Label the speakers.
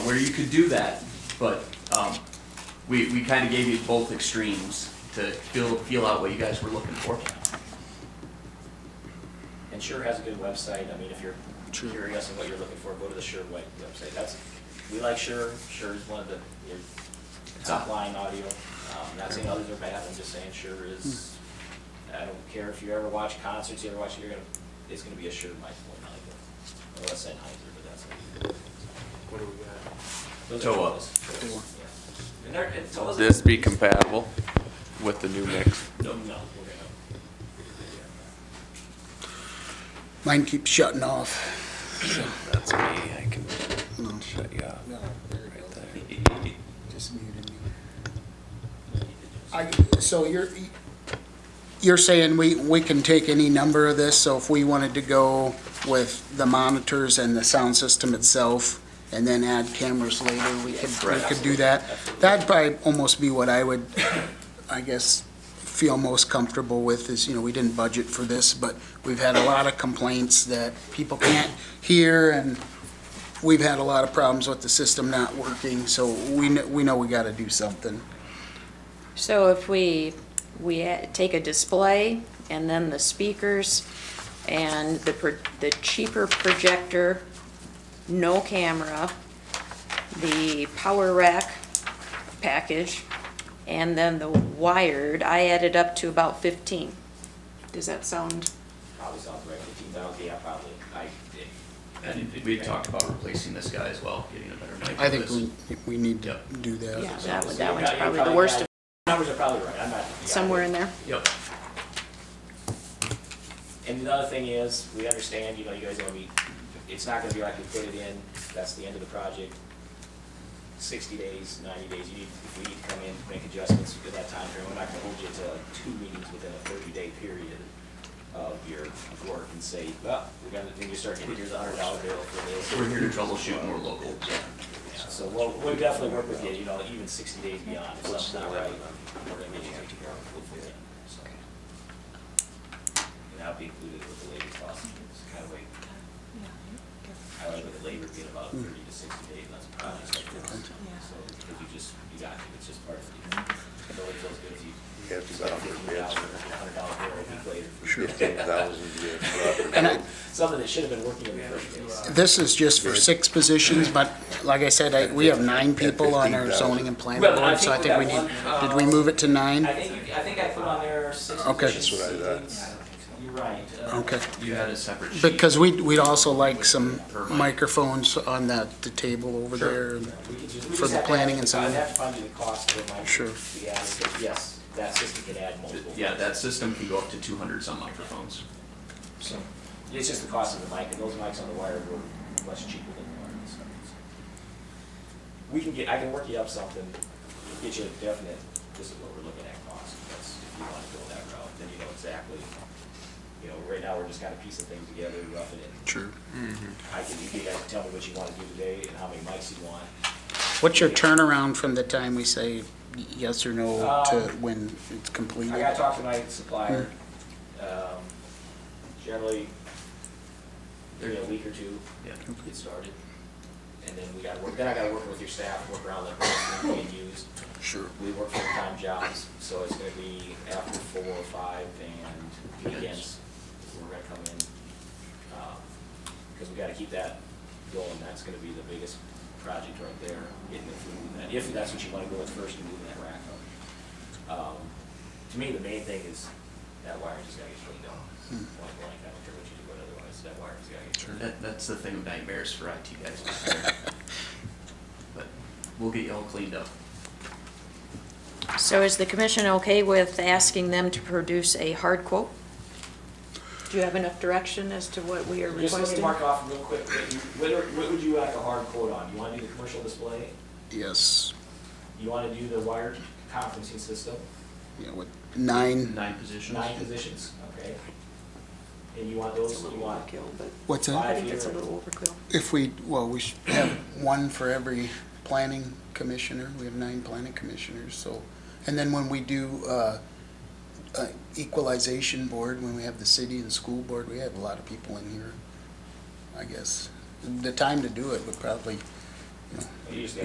Speaker 1: where you could do that, but, um, we, we kinda gave you both extremes to feel, feel out what you guys were looking for.
Speaker 2: And Sure has a good website, I mean, if you're
Speaker 3: Sure.
Speaker 2: curious and what you're looking for, go to the Sure web- website, that's, we like Sure, Sure is one of the, your top line audio. Um, Not saying others are bad, I'm just saying Sure is, I don't care if you ever watch concerts, you ever watch, you're gonna, it's gonna be a Sure microphone, like, or a Sennheiser, but that's.
Speaker 3: What do we got?
Speaker 2: those are
Speaker 1: Toa.
Speaker 2: Toas, Toas,
Speaker 3: Toa.
Speaker 2: yeah. And they're, and Toas.
Speaker 4: This be compatible with the new mix?
Speaker 2: No, no, we're gonna.
Speaker 3: Mine keeps shutting off.
Speaker 4: That's me, I can shut you off.
Speaker 3: No, there it
Speaker 4: right
Speaker 3: goes.
Speaker 4: there.
Speaker 3: Just muted me.
Speaker 2: we need to do something.
Speaker 3: I, so you're, you're saying we, we can take any number of this, so if we wanted to go with the monitors and the sound system itself, and then add cameras later, we could, we could do that? That'd probably almost be what I would, I guess, feel most comfortable with, is, you know, we didn't budget for this, but we've had a lot of complaints that people can't hear, and we've had a lot of problems with the system not working, so we, kn- we know we gotta do something.
Speaker 5: So if we, we a- take a display and then the speakers and the, pro- the cheaper projector, no camera, the power rack package, and then the wired, I added up to about fifteen. Does that sound?
Speaker 2: Probably sounds right, fifteen thousand, yeah, probably, I, it-
Speaker 1: And we had talked about replacing this guy as well, getting a better mic. for
Speaker 3: I think
Speaker 1: this.
Speaker 3: we, we need to
Speaker 1: Yep.
Speaker 3: do that.
Speaker 5: Yeah, that one,
Speaker 2: So
Speaker 5: that
Speaker 2: you
Speaker 5: one's
Speaker 2: got- you
Speaker 5: probably the worst, of
Speaker 2: Numbers are probably right, I'm not. yeah.
Speaker 5: somewhere in there.
Speaker 1: Yep,
Speaker 2: And the other thing is, we understand, you know, you guys are gonna be, it's not gonna be like we put it in, that's the end of the project. Sixty days, ninety days, you need, if we need to come in, make adjustments at that time frame, we're not gonna hold you to like two meetings within a thirty-day period of your work and say, well, we're gonna, then you start getting, here's a hundred dollar bill for this.
Speaker 1: we're here to troubleshoot and we're local.
Speaker 2: Yeah, So we'll, we'll definitely work with you, you know, even sixty days beyond, if something's not right, we're gonna get you taken care of, hopefully, yeah, so. And that'll be included with the labor cost, it's kind of like, I like with the labor being about thirty to sixty days, that's probably just like this. So, because you just, you got, it, it's just part of it. It always feels good if you.
Speaker 6: You have to go out for bids.
Speaker 2: Hundred dollar bill a week later.
Speaker 6: Sure.
Speaker 3: And I,
Speaker 2: Something that should have been working in the first place.
Speaker 3: this is just for six positions, but like I said, I, we have nine people on our zoning and planning
Speaker 2: Well, I
Speaker 3: board, so I
Speaker 2: think
Speaker 3: think we
Speaker 2: we got
Speaker 3: need,
Speaker 2: one, uh,
Speaker 3: did we move it to
Speaker 2: I
Speaker 3: nine?
Speaker 2: think, you- I think I put on there six
Speaker 3: Mm. Okay.
Speaker 2: positions.
Speaker 6: That's what I
Speaker 2: seats. You're right. uh,
Speaker 3: Okay,
Speaker 1: You had a separate sheet.
Speaker 3: because we, we'd also like some microphones on that, the table over there.
Speaker 2: we could just- we
Speaker 3: For
Speaker 2: just
Speaker 3: the
Speaker 2: have to
Speaker 3: planning
Speaker 2: add-
Speaker 3: and zoning.
Speaker 2: I'd have to find you the cost of my.
Speaker 3: Sure.
Speaker 2: We asked, but yes, that system could add multiple.
Speaker 1: Yeah, that system can go up to two hundred some microphones.
Speaker 2: So, It's just the cost of the mic, and those mics on the wire were much cheaper than the wireless. ones. We can get, I can work you up something, get you a definite, this is what we're looking at cost, that's, if you wanna go that route, then you know exactly. You know, right now, we're just kinda piecing things together, roughing it.
Speaker 3: Sure.
Speaker 2: I can, you guys can tell me what you wanna do today and how many mics you want.
Speaker 3: What's your turnaround from the time we say yes or no to when
Speaker 2: Um, I
Speaker 3: it's completed?
Speaker 2: gotta talk to my supplier. Um, Generally, in a week or two,
Speaker 1: Yeah.
Speaker 2: get started. And then we gotta work, then I gotta work with your staff, work around the person being used.
Speaker 3: Sure.
Speaker 2: We work full-time jobs, so it's gonna be after four or five and weekends. We're gonna come in, um, because we gotta keep that going. That's gonna be the biggest project right there, getting the food and that, if that's what you wanna go with first and moving that rack up. Um, To me, the main thing is that wire just gotta get cleaned up. Point blank, I don't care what you do, but otherwise, that wire just gotta get cleaned
Speaker 1: That,
Speaker 2: up.
Speaker 1: that's the thing of nightmares for IT guys. But we'll get you all cleaned up.
Speaker 5: So is the commission okay with asking them to produce a hard quote? Do you have enough direction as to what we are
Speaker 2: Just let me
Speaker 5: requesting?
Speaker 2: mark off real quick, what you- what are- what would you like a hard quote on? You wanna do the commercial display?
Speaker 3: Yes,
Speaker 2: You wanna do the wired conferencing system,
Speaker 3: yeah, with nine,
Speaker 1: Nine positions.
Speaker 2: nine positions, okay? And you want those, you want
Speaker 3: what's that?
Speaker 5: I think it's a little overkill.
Speaker 3: If we, well, we should have one for every planning commissioner, we have nine planning commissioners, so. And then when we do, uh, uh, equalization board, when we have the city and school board, we have a lot of people in here, I guess. The time to do it would probably
Speaker 2: You just